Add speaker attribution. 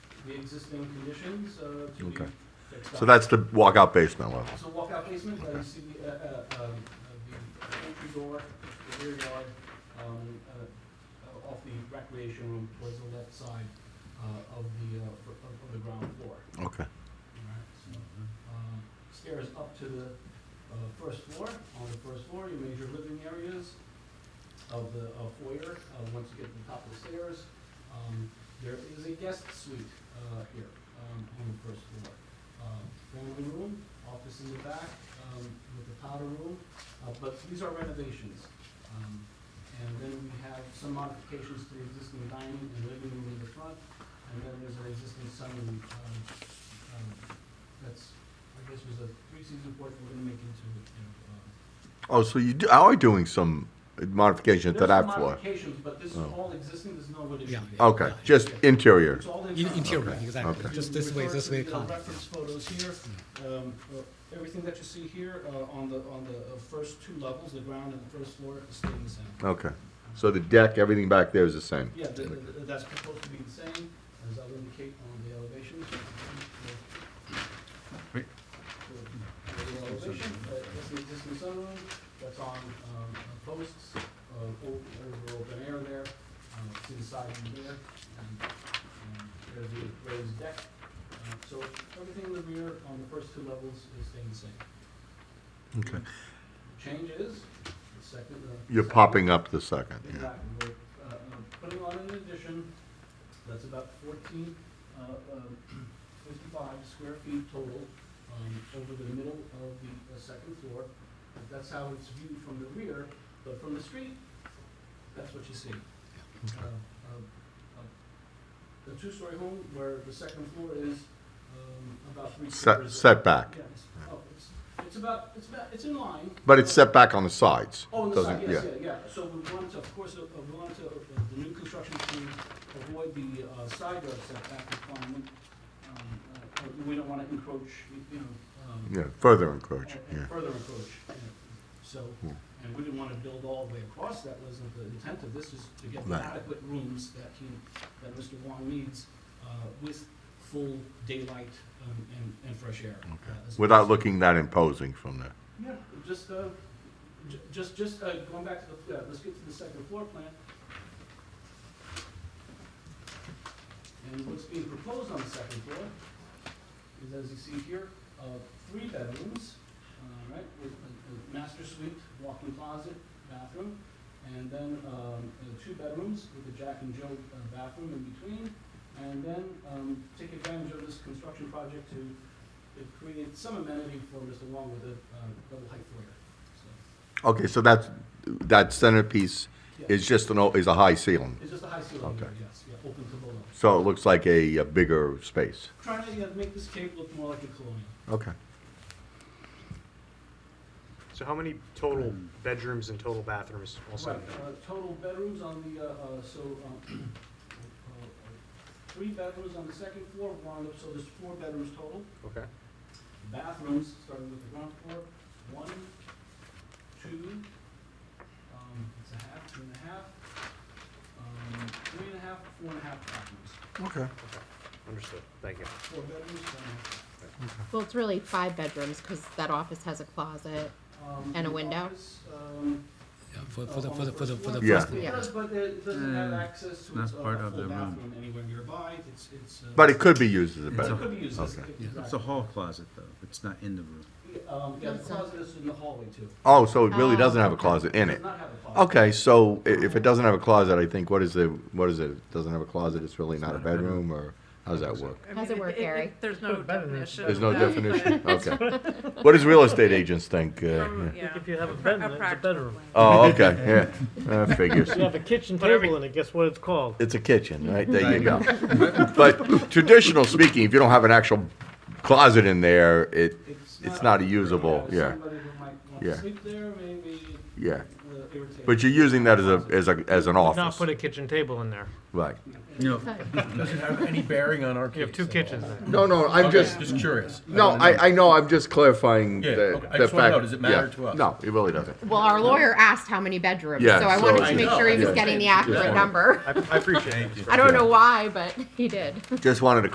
Speaker 1: the existing conditions uh, to be
Speaker 2: Okay.
Speaker 1: fixed
Speaker 2: So
Speaker 1: up.
Speaker 2: that's the walkout basement level.
Speaker 1: So walkout basement, uh, you see the, uh, uh, um, uh, the entry door, the rear yard, um, uh, uh, off the recreation room towards the left side, uh, of the, uh, of, of the ground floor.
Speaker 2: Okay.
Speaker 1: Alright, so, um, Stairs up to the, uh, first floor, on the first floor, your major living areas of the uh, foyer, uh, once you get to the top of the stairs. Um, there is a guest suite, uh, here, um, on the first floor. Um, family room, office in the back, um, with the powder room, uh, but these are renovations. Um, and then we have some modifications to the existing dining and living room in the front, and then there's an existing sunroom, um, um, that's, I guess was a three-season porch we're gonna make into, you know, um,
Speaker 2: Oh, so you do, are doing some modification to
Speaker 1: there's some
Speaker 2: that floor?
Speaker 1: modifications, but this is
Speaker 2: Oh.
Speaker 1: all existing, there's no
Speaker 3: Yeah.
Speaker 1: addition.
Speaker 3: yeah,
Speaker 2: Okay,
Speaker 3: yeah.
Speaker 2: just interior.
Speaker 1: It's all
Speaker 3: In-
Speaker 1: internal.
Speaker 3: Interior,
Speaker 2: Okay,
Speaker 3: exactly.
Speaker 2: okay.
Speaker 3: Just this way,
Speaker 1: Refer
Speaker 3: this
Speaker 1: to
Speaker 3: way.
Speaker 1: the
Speaker 3: contact,
Speaker 1: Reference photos here, um, uh, everything that you see here, uh, on the, on the uh, first two levels, the ground and the first floor, is staying the same.
Speaker 2: Okay. So the deck, everything back there is the same?
Speaker 1: Yeah, the- the- the- that's proposed to be the same, as I'll indicate on the elevation. uh,
Speaker 4: Wait.
Speaker 1: The elevation, uh, that's the existing sunroom, that's on um, posts, uh, o- over open air there, um, to the side from there. and, um, There's the raised deck, Uh, so everything in the rear on the first two levels is staying the same.
Speaker 2: Okay.
Speaker 1: Change is, the second. uh,
Speaker 2: You're
Speaker 1: second-
Speaker 2: popping up the second. yeah.
Speaker 1: Exactly, we're, uh, uh, putting on an addition, that's about fourteen, uh, um, fifty-five square feet total, um, over the middle of the, uh second floor. That's how it's viewed from the rear, but from the street, that's what you see. Uh, uh, uh, The two-story home where the second floor is, um, about three
Speaker 2: Set,
Speaker 1: quarters.
Speaker 2: setback,
Speaker 1: Yeah, it's, oh, it's, it's about, it's about, it's in line.
Speaker 2: but it's setback on the sides.
Speaker 1: Oh, on the
Speaker 2: doesn't-
Speaker 1: side, yes, yeah, yeah. So we wanted to, of course, uh, we wanted to, uh, the new construction to avoid the uh, side yard setback requirement. Um, uh, uh, We don't want to encroach, you- you know, um,
Speaker 2: Yeah, further
Speaker 1: and-
Speaker 2: encroaching, yeah.
Speaker 1: and further encroach. you know. So,
Speaker 2: Yeah.
Speaker 1: and we didn't want to build all the way across. That wasn't the intent of this, is to get the
Speaker 2: Right.
Speaker 1: adequate rooms that he, that Mr. Wong needs uh, with full daylight um, and, and fresh air. uh, as
Speaker 2: Without
Speaker 1: opposed to-
Speaker 2: looking that imposing from there.
Speaker 1: yeah, just, uh, ju- just, just, uh, going back to the, uh, let's get to the second floor plan. And what's being proposed on the second floor is, as you see here, uh, three bedrooms, all right, with a, a master suite, walk-in closet, bathroom, and then, um, uh, two bedrooms with a Jack and Jill uh, bathroom in between. And then, um, take advantage of this construction project to it created some amenity for Mr. Wong with a uh, double height foyer. So,
Speaker 2: Okay, so that's, that centerpiece
Speaker 1: yeah.
Speaker 2: is just an, o- is a high ceiling,
Speaker 1: It's just a high ceiling here,
Speaker 2: Okay.
Speaker 1: yes, yeah, open to below.
Speaker 2: so it looks like a a bigger space.
Speaker 1: Trying to, yeah, make this cave look more like a colonial.
Speaker 2: Okay.
Speaker 5: So how many total bedrooms and total bathrooms also?
Speaker 1: Right, uh, total bedrooms on the, uh, uh, so, um, uh, three bedrooms on the second floor, one, so there's four bedrooms total.
Speaker 5: Okay,
Speaker 1: Bathrooms, starting with the ground floor, one, two, um, it's a half, two and a half, um, three and a half, four and a half bathrooms.
Speaker 2: Okay.
Speaker 5: understood, thank you.
Speaker 1: Four bedrooms, one and a half.
Speaker 6: Well, it's really five bedrooms because that office has a closet.
Speaker 1: Um,
Speaker 6: And a
Speaker 1: the
Speaker 6: window?
Speaker 1: office, um,
Speaker 3: yeah, For, for
Speaker 1: uh,
Speaker 3: the,
Speaker 1: on
Speaker 3: for the, for the, for the
Speaker 1: first
Speaker 2: Yeah.
Speaker 3: first
Speaker 1: floor.
Speaker 3: floor.
Speaker 1: It
Speaker 6: Yeah.
Speaker 1: does, but it doesn't have access to
Speaker 4: not
Speaker 1: its uh,
Speaker 4: part of
Speaker 1: full
Speaker 4: the room.
Speaker 1: bathroom anywhere nearby. It's, it's. uh,
Speaker 2: But it could be used as a
Speaker 4: It's
Speaker 1: but
Speaker 4: a-
Speaker 1: it
Speaker 2: bedroom.
Speaker 1: could be used as,
Speaker 2: Okay.
Speaker 1: exactly.
Speaker 4: Yeah, It's a hall closet, though. It's not in the room.
Speaker 1: Um, yeah, the
Speaker 6: That's a-
Speaker 1: closet is in the hallway too.
Speaker 2: Oh, so it really
Speaker 6: Oh,
Speaker 2: doesn't have a
Speaker 6: okay.
Speaker 2: closet in
Speaker 1: Does
Speaker 2: it?
Speaker 1: not have a closet.
Speaker 2: Okay, so i- if it doesn't have a closet, I think, what is the, what is it? It Doesn't have a closet, it's really not a bedroom, or how does that work?
Speaker 7: I
Speaker 6: How's
Speaker 7: mean,
Speaker 6: it work, Gary?
Speaker 7: There's no definition.
Speaker 2: There's no
Speaker 7: of that,
Speaker 2: definition, okay. What does real estate agents think? uh,
Speaker 7: but
Speaker 2: yeah?
Speaker 7: from- yeah,
Speaker 8: If you have a
Speaker 7: pra-
Speaker 8: bedroom, it's a
Speaker 7: practical
Speaker 8: bedroom.
Speaker 7: plan.
Speaker 2: Oh, okay, yeah, that figures.
Speaker 8: If you have a kitchen
Speaker 7: Whatever-
Speaker 8: table in it, guess what it's called?
Speaker 2: It's a kitchen, right? There
Speaker 4: There
Speaker 2: you
Speaker 4: you
Speaker 2: go. But traditional speaking, if you don't have an actual closet in there, it, it's not a usable, yeah,
Speaker 1: Somebody who might want
Speaker 2: Yeah.
Speaker 1: to sleep there, maybe
Speaker 2: yeah.
Speaker 1: uh, irritate.
Speaker 2: But you're using that as a, as a, as an
Speaker 8: Not
Speaker 2: office,
Speaker 8: put a kitchen table in there.
Speaker 2: right?
Speaker 4: No,
Speaker 9: Doesn't have any bearing on our case.
Speaker 8: You have two
Speaker 9: at all.
Speaker 8: kitchens there.
Speaker 2: No, no, I'm
Speaker 9: Okay,
Speaker 2: just,
Speaker 9: curious.
Speaker 2: no,
Speaker 9: don't know.
Speaker 2: I, I know, I'm just clarifying
Speaker 9: Yeah,
Speaker 2: the,
Speaker 9: okay, I
Speaker 2: the
Speaker 9: just wanna
Speaker 2: fact.
Speaker 9: know, does it matter
Speaker 2: yeah.
Speaker 9: to us?
Speaker 2: No, it really doesn't.
Speaker 6: Well, our lawyer asked how many bedrooms,
Speaker 2: Yeah,
Speaker 6: so I
Speaker 2: so
Speaker 6: wanted
Speaker 2: I
Speaker 6: to make
Speaker 9: know,
Speaker 6: sure he
Speaker 9: I
Speaker 6: was
Speaker 9: know.
Speaker 6: getting the
Speaker 9: Yeah.
Speaker 6: accurate number.
Speaker 4: I appreciate it.
Speaker 6: I don't know why, but he did.
Speaker 2: Just wanted to